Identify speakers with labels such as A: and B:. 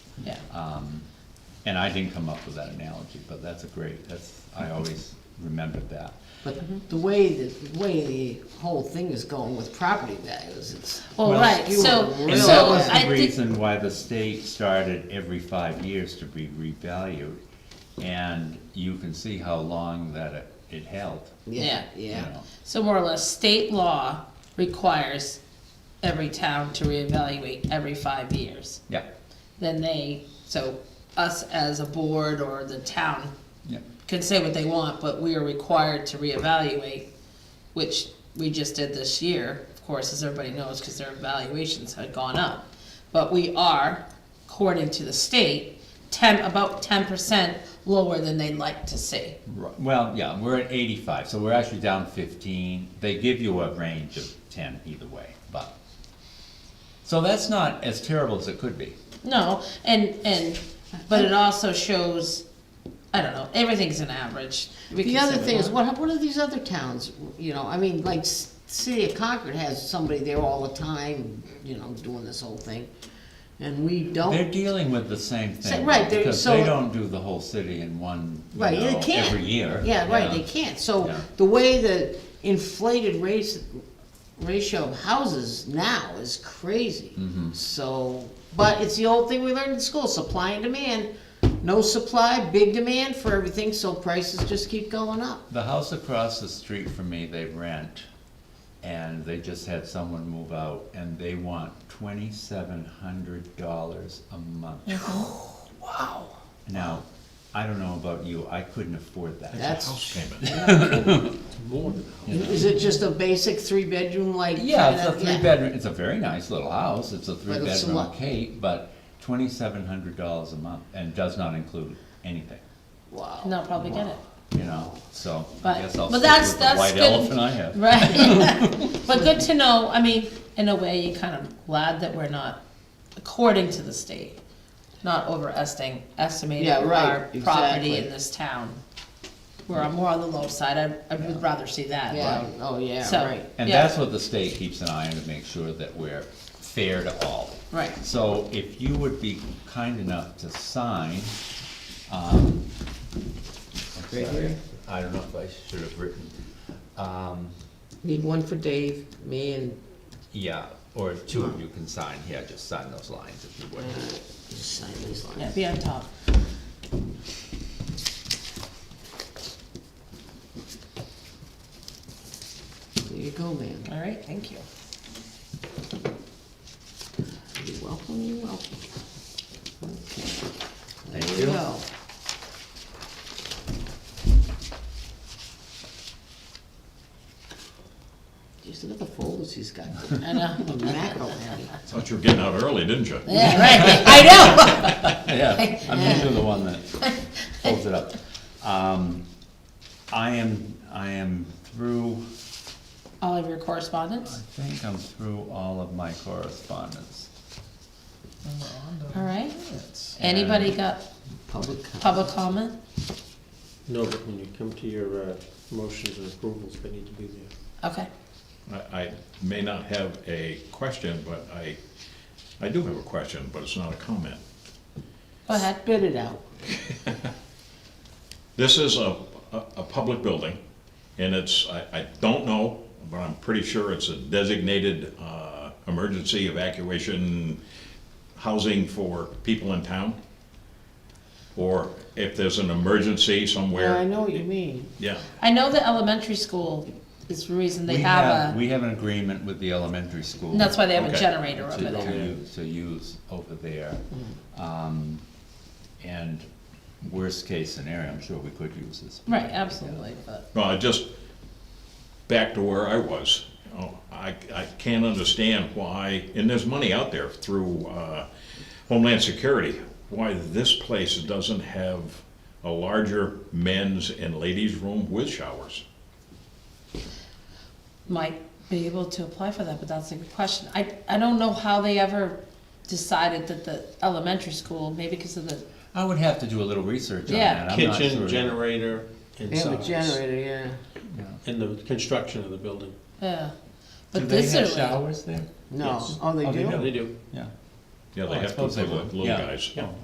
A: Yeah.
B: Um, And I didn't come up with that analogy, but that's a great, that's, I always remembered that.
A: But the way, that- the way the whole thing is going with property values, it's.
C: Well, right,
A: you are
C: so-
B: And
A: really
B: that
C: So,
B: was
C: I
B: the
C: think-
B: reason why the state started every five years to be revalued. And you can see how long that it, it held.
A: Yeah,
C: Yeah.
B: you
A: yeah.
B: know.
C: So more or less, state law requires every town to reevaluate every five years.
B: Yeah,
C: Then they, so us as a board or the town
B: yeah,
C: can say what they want, but we are required to reevaluate, which we just did this year, of course, as everybody knows, because their valuations had gone up. But we are, according to the state, ten, about ten percent lower than they'd like to see.
B: Ri- well, yeah, we're at eighty-five, so we're actually down fifteen. They give you a range of ten either way, but. So that's not as terrible as it could be.
C: No, and, and, but it also shows, I don't know, everything's an average.
A: The
C: We can
A: other
C: say
A: thing is,
C: what-
A: what, what are these other towns, you know, I mean, like, S- City of Concord has somebody there all the time, you know, doing this whole thing, and we
B: They're
A: don't.
B: dealing with the same thing,
A: right, they're-
B: because
A: Oh. so-
B: they don't do the whole city in one, you
A: Right, they
B: know,
A: can't.
B: every year.
A: Yeah, right, they can't, so
B: Yeah.
A: the way the inflated race, ratio of houses now is crazy.
B: Mm-hmm.
A: So, but it's the old thing we learned in school, supply and demand, no supply, big demand for everything, so prices just keep going up.
B: The house across the street from me, they rent, and they just had someone move out, and they want twenty-seven hundred dollars a month. Wow.
A: Oh.
B: Now, I don't know about you, I couldn't afford that.
A: That's,
D: payment. More than that.
A: is it just a basic three-bedroom like?
B: Yeah, it's
A: kinda-
B: a three-bedroom, it's a very nice little house, it's a
A: it's a
B: three-bedroom
A: lot.
B: Kate, but twenty-seven hundred dollars a month, and does not include anything.
A: Wow.
C: And they'll probably get it.
B: you know, so I
C: But,
B: guess I'll
C: but
B: stick
C: that's,
B: with the
C: that's
B: white
C: good.
B: elephant I have.
C: Right. But good to know, I mean, in a way, you're kind of glad that we're not, according to the state, not overestimating, estimating
A: Yeah, right,
C: our property
A: exactly.
C: in this town. We're more on the low side, I, I would rather see that,
A: Yeah,
C: right?
A: oh, yeah,
C: So-
A: right.
B: And
C: Yeah.
B: that's what the state keeps an eye on to make sure that we're fair to all.
C: Right.
B: So if you would be kind enough to sign, um, I'm sorry,
A: Right here?
B: I don't know if I should have written, um,
A: Need one for Dave, me and,
B: yeah, or two of you can sign, yeah, just sign those lines if you would.
A: just sign these
C: Yeah,
A: lines.
C: be on top.
A: There you go, man.
C: All right, thank you.
A: You're welcome, you're welcome. Okay.
B: Thank
A: There
B: you.
A: we go. Just look at the folders he's got.
C: I know.
A: Mackerel, Harry.
D: Thought you were getting out early, didn't you?
C: Yeah, right, I know.
B: Yeah, I'm usually the one that holds it up. Um, I am, I am through
C: All of your
B: I
C: correspondence,
B: think I'm through all of my correspondence.
C: all right? Anybody got
A: Public com-
C: public comment?
E: No, but when you come to your uh, motions and approvals, they need to be there.
C: Okay,
D: I, I may not have a question, but I, I do have a question, but it's not a comment.
C: go ahead.
A: Spit it out.
D: This is a, a, a public building, and it's, I, I don't know, but I'm pretty sure it's a designated, uh, emergency evacuation housing for people in town. Or if there's an emergency
A: Yeah, I
D: somewhere,
A: know what you mean.
D: yeah,
C: I know the elementary school is the reason they
B: We
C: have a,
B: We have an agreement with the elementary school.
C: and that's why they have a
D: Okay.
C: generator
B: To,
C: over
B: to
C: there.
B: use, to use over there.
C: Mm.
B: Um, and worst case scenario, I'm sure we could use this.
C: Right, absolutely, but,
D: Well, I just, back to where I was, Oh, I, I can't understand why, and there's money out there through uh, Homeland Security, why this place doesn't have a larger men's and ladies' room with showers.
C: might be able to apply for that, but that's a good question. I, I don't know how they ever decided that the elementary school, maybe because of the,
B: I would have to do a little research on
C: Yeah.
B: that. I'm not
E: Kitchen,
B: sure.
E: generator, and
A: They have a
E: size.
A: generator, yeah.
E: And the construction of the building.
C: yeah.
B: Do
C: But
B: they
C: this
B: have
C: is,
B: showers there?
A: No,
E: Yes.
A: oh, they
B: Oh, they
A: do?
B: do.
E: They do.
B: Yeah.
D: Yeah,
B: Oh, I
D: they have to
B: suppose
D: for
B: they
D: the
B: would,
D: little
B: yeah.
D: guys.
E: Yeah.